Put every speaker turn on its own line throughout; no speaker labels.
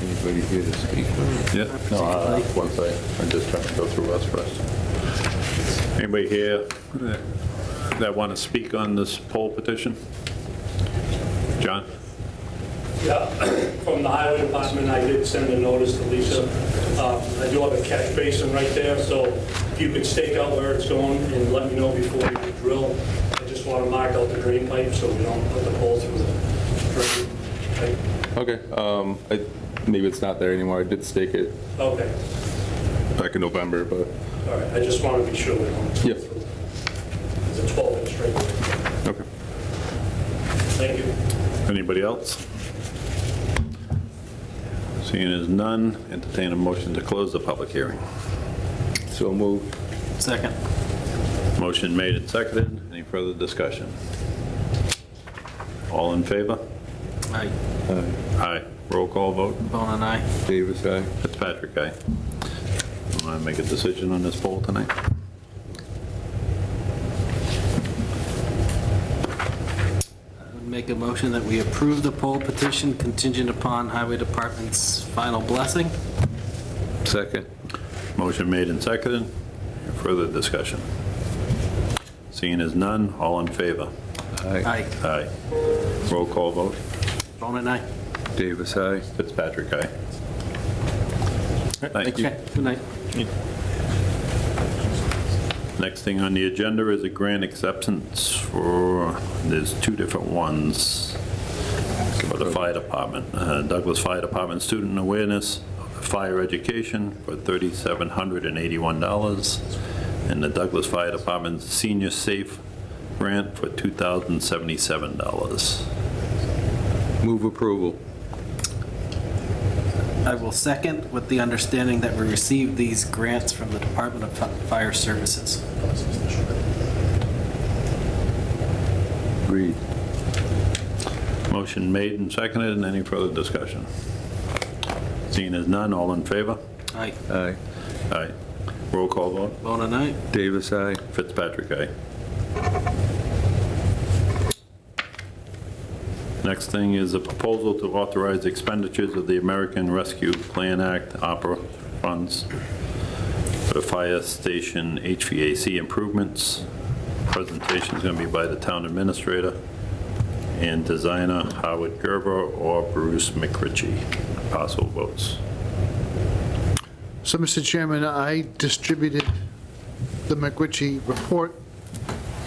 anybody here to speak? or-
Yeah.
No, uh, one thing, I'm just trying to go through us first.
Anybody here that- that want to speak on this poll petition? John?
Yeah, from the highway department, I did send a notice to Lisa. Um, I do have a catch basin right there, so if you could stake out where it's going and let me know before you drill. I just want to mark out the drain pipe so we don't put the hole through the drain pipe.
Okay, um, I, maybe it's not there anymore, I did stake it
Okay,
back in November, but,
all right, I just want to be sure we don't.
Yep.
It's a 12-inch straight.
okay.
Thank you.
Anybody else? Seeing as none, entertain a motion to close the public hearing.
So moved.
Second.
Motion made and seconded. Any further discussion? All in favor?
Aye.
Aye. Roll call vote.
Bone and I.
Davis, aye.
Fitzpatrick, aye. Want to make a decision on this poll tonight?
Make a motion that we approve the poll petition contingent upon Highway Department's final blessing.
Second.
Motion made and seconded. Further discussion? Seeing as none, all in favor?
Aye.
Aye.
Aye. Roll call vote.
Bone and I.
Davis, aye.
Fitzpatrick, aye. Thank you.
Okay, good night.
Next thing on the agenda is a grant acceptance for, there's two different ones for the fire department. Uh, Douglas Fire Department Student Awareness, Fire Education for $3,781, and the Douglas Fire Department Senior Safe Grant for $2,077.
Move approval.
I will second with the understanding that we receive these grants from the Department of Fi- Fire Services.
Agreed.
Motion made and seconded, and any further discussion? Seeing as none, all in favor?
Aye.
Aye.
Aye. Roll call vote.
Bone and I.
Davis, aye.
Fitzpatrick, eh? aye. Next thing is a proposal to authorize expenditures of the American Rescue Plan Act opera funds for the fire station HVAC improvements. Presentation is going to be by the town administrator and designer Howard Gerber or Bruce McRitchie. Possible votes.
So, Mr. Chairman, I distributed the McRitchie report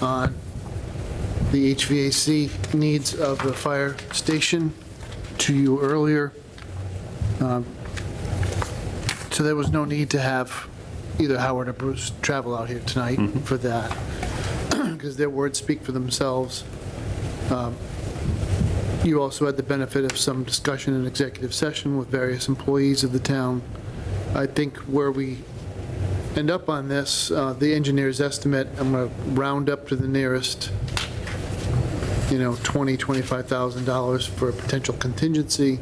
on the HVAC needs of the fire station to you earlier. Um, So there was no need to have either Howard or Bruce travel out here tonight for that, because their words speak for themselves. Um, You also had the benefit of some discussion in executive session with various employees of the town. I think where we end up on this, uh, the engineer's estimate, I'm going to round up to the nearest, you know, $20,000, $25,000 for a potential contingency.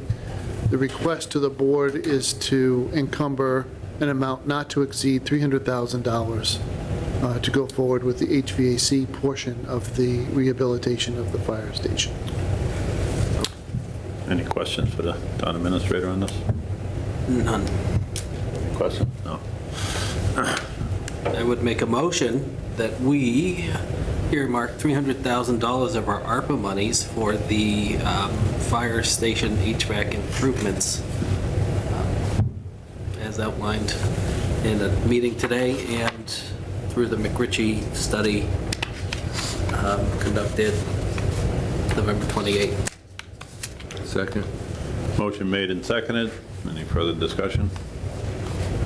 The request to the board is to encumber an amount not to exceed $300,000 uh, to go forward with the HVAC portion of the rehabilitation of the fire station.
Any questions for the town administrator on this?
None.
Question? No.
I would make a motion that we earmark $300,000 of our ARPA monies for the um, fire station HVAC improvements, um, as outlined in a meeting today and through the McRitchie study um, conducted November 28.
Second.
Motion made and seconded. Any further discussion?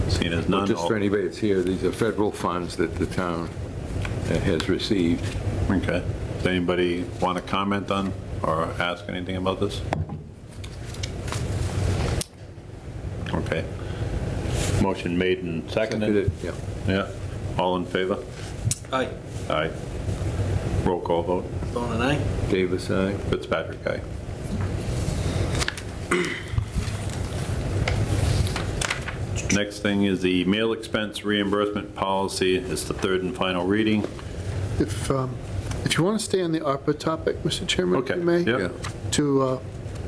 Seeing as
Uh,
Well,
none,
just
all...
for anybody that's here, these are federal funds that the town uh, has received.
Okay. Does anybody want to comment on or ask anything about this? Okay. Motion made and seconded.
Yeah.
Yeah. All in favor?
Aye.
Aye. Roll call vote.
Bone and I.
Davis, aye.
Fitzpatrick, aye. Next thing is the meal expense reimbursement policy. It's the third and final reading.
If, um, if you want to stay on the ARPA topic, Mr. Chairman, if
Okay.
you may?
Yep.
Yeah.
to uh,